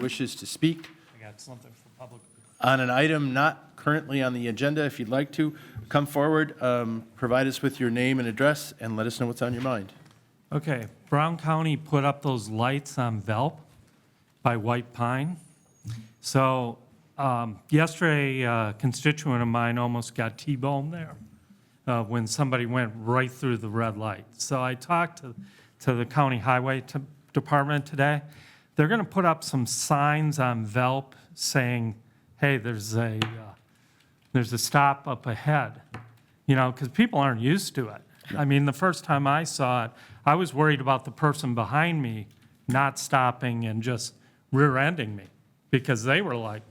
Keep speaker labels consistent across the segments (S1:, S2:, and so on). S1: wishes to speak
S2: I got something for public.
S1: on an item not currently on the agenda, if you'd like to, come forward, um, provide us with your name and address, and let us know what's on your mind.
S2: Okay, Brown County put up those lights on Velp by White Pine. So um, yesterday, a constituent of mine almost got T-boned there uh, when somebody went right through the red light. So I talked to, to the county highway t- department today. They're going to put up some signs on Velp saying, hey, there's a, uh, there's a stop up ahead, you know, because people aren't used to it. I mean, the first time I saw it, I was worried about the person behind me not stopping and just rear-ending me because they were like,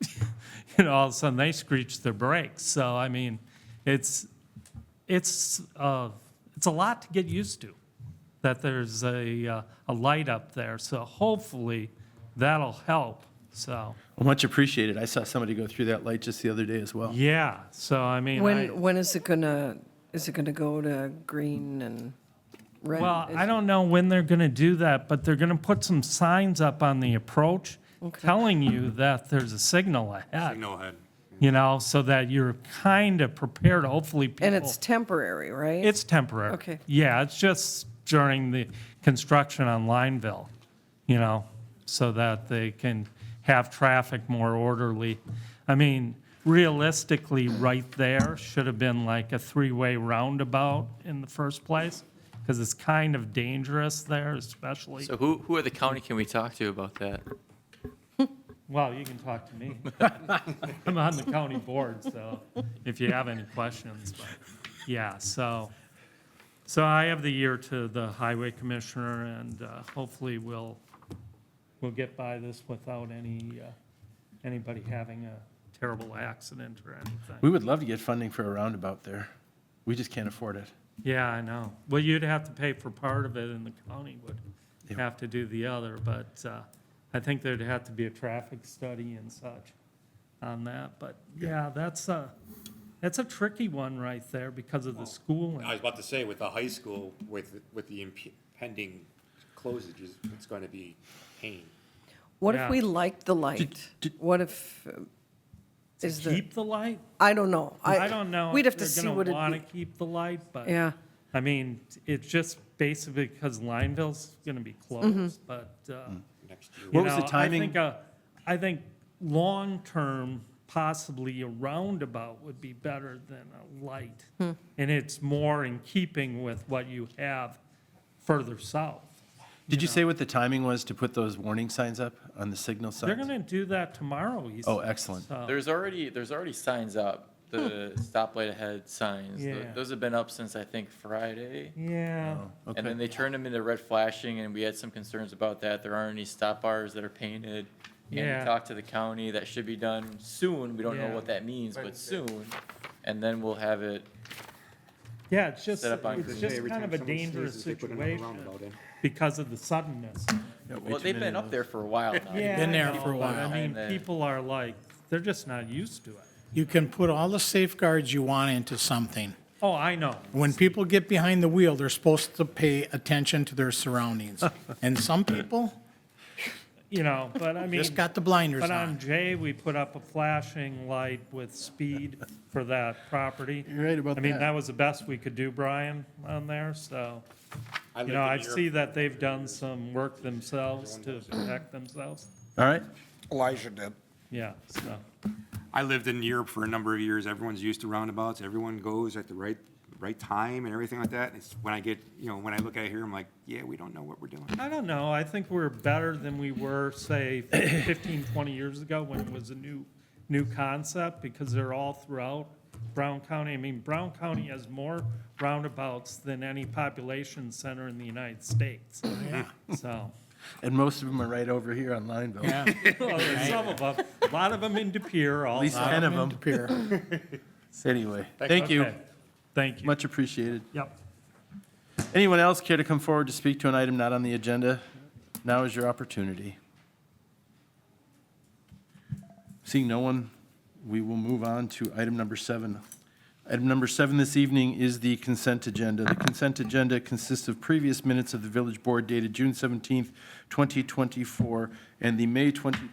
S2: you know, all of a sudden they screeched their brakes. So, I mean, it's, it's, uh, it's a lot to get used to that there's a, uh, a light up there. So hopefully that'll help. So,
S1: Much appreciated. I saw somebody go through that light just the other day as well.
S2: yeah. So, I mean, I-
S3: When, when is it gonna, is it gonna go to green and red?
S2: Well,
S3: Is-
S2: I don't know when they're going to do that, but they're going to put some signs up on the approach telling you that there's a signal ahead,
S4: Signal ahead.
S2: you know, so that you're kind of prepared, hopefully people.
S3: And it's temporary, right?
S2: It's temporary.
S3: Okay.
S2: Yeah, it's just during the construction on Lineville, you know, so that they can have traffic more orderly. I mean, realistically, right there should have been like a three-way roundabout in the first place, because it's kind of dangerous there, especially.
S5: So who, who at the county can we talk to about that?
S2: Well, you can talk to me. I'm on the county board, so if you have any questions, but, yeah, so. So I have the year to the highway commissioner and uh, hopefully we'll, we'll get by this without any, uh, anybody having a terrible accident or anything.
S1: We would love to get funding for a roundabout there. We just can't afford it.
S2: Yeah, I know. Well, you'd have to pay for part of it and the county
S1: Yeah.
S2: would have to do the other, but uh, I think there'd have to be a traffic study and such on that, but yeah, that's a, that's a tricky one right there because of the schooling.
S4: I was about to say, with the high school, with, with the impending closages, it's going to be pain.
S3: What
S2: yeah.
S3: if we liked the light? What if, um, is the,
S2: Keep the light?
S3: I don't know.
S2: I don't know.
S3: We'd
S2: if
S3: have to
S2: they're
S3: see
S2: gonna
S3: what
S2: Wanna
S3: it'd
S2: keep the light, but.
S3: be. Yeah,
S2: I mean, it's just basically because Lineville's gonna be
S3: Mm-hmm.
S2: closed, but, uh,
S4: Next year,
S2: You
S1: What was the
S2: know,
S1: timing?
S2: I think, uh, I think long-term, possibly a roundabout would be better than a light. And it's more in keeping with what you have further south.
S1: Did you say what the timing was to put those warning signs up on the signal signs?
S2: They're going to do that tomorrow, he
S1: Oh,
S2: said,
S1: excellent.
S2: so-
S5: There's already, there's already signs up, the stoplight ahead signs. Tho-
S2: Hmm. Yeah.
S5: Those have been up since, I think, Friday.
S2: Yeah,
S5: And
S1: Okay.
S5: then they turned them into red flashing, and we had some concerns about that. There aren't any stop bars that are painted. And
S2: Yeah.
S5: we talked to the county, that should be done soon. We don't know
S2: Yeah.
S5: what that means, but soon. And then we'll have it,
S2: yeah, it's just,
S5: Set up on
S2: it's
S5: Green
S2: just
S4: Every
S2: kind
S4: time
S2: of a
S4: someone
S2: dangerous
S4: sneezes, they put another
S2: situation
S4: roundabout in.
S2: because of the suddenness.
S1: Yeah, way
S5: well,
S1: too
S5: they've
S1: many
S5: been
S1: of
S5: up
S1: those.
S5: there for a while now.
S2: Yeah,
S6: been
S2: I
S6: there
S2: know,
S6: for a
S2: but
S6: while.
S2: I mean,
S5: And, uh,
S2: people are like, they're just not used to it.
S6: You can put all the safeguards you want into something.
S2: Oh, I know.
S6: When people get behind the wheel, they're supposed to pay attention to their surroundings. And some people
S2: You know, but I mean.
S6: just got the blinders
S2: But on
S6: on.
S2: J, we put up a flashing light with speed for that property.
S1: You're right about
S2: I mean,
S1: that.
S2: that was the best we could do, Brian, on there, so,
S4: I
S2: you
S4: lived
S2: know,
S4: in
S2: I
S4: Europe.
S2: see that they've done some work themselves to protect themselves.
S1: All right.
S7: Elijah did.
S2: Yeah, so,
S4: I lived in Europe for a number of years. Everyone's used to roundabouts. Everyone goes at the right, right time and everything like that. It's when I get, you know, when I look at it here, I'm like, yeah, we don't know what we're doing.
S2: I don't know, I think we're better than we were, say, 15, 20 years ago when it was a new, new concept, because they're all throughout Brown County. I mean, Brown County has more roundabouts than any population center in the United States,
S1: Oh,
S2: so.
S1: And most of them are right over here on Lineville.
S6: Yeah,
S2: Well, there's some of 'em. a lot of them in De Pere, all.
S1: At least 10 of them.
S6: disappear.
S1: Anyway, thank you.
S2: Okay. Thank you.
S1: Much appreciated.
S2: Yep.
S1: Anyone else care to come forward to speak to an item not on the agenda? Now is your opportunity. Seeing no one, we will move on to item number seven. Item number seven this evening is the consent agenda. The consent agenda consists of previous minutes of the village board dated June 17th, 2024, and the May 2024